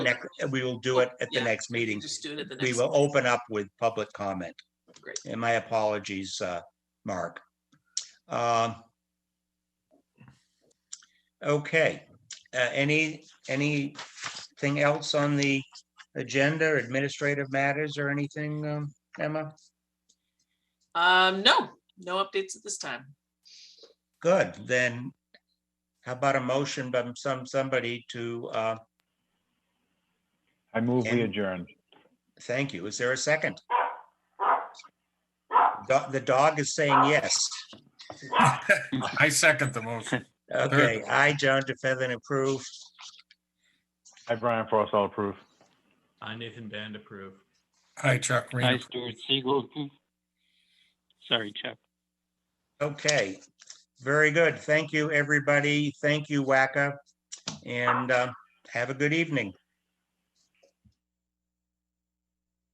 next, we will do it at the Yeah. next meeting. Just do it at the next. We will open up with public comment. Great. And my apologies, uh, Mark. Um, Okay, uh, any, anything else on the agenda, administrative matters or anything, um, Emma? Um, no, no updates at this time. Good, then how about a motion by some, somebody to, uh, I move we And- adjourn. thank you. Is there a second? Do- The dog is saying yes. I second the motion. Okay, I, John DeFeather, approve. I, Brian Frost, all approve. I, Nathan Band, approve. Hi, Chuck Hi, Reed. Stuart Siegel. Sorry, Chuck. Okay, very good. Thank you, everybody. Thank you, WACA. And uh, um, have a good evening.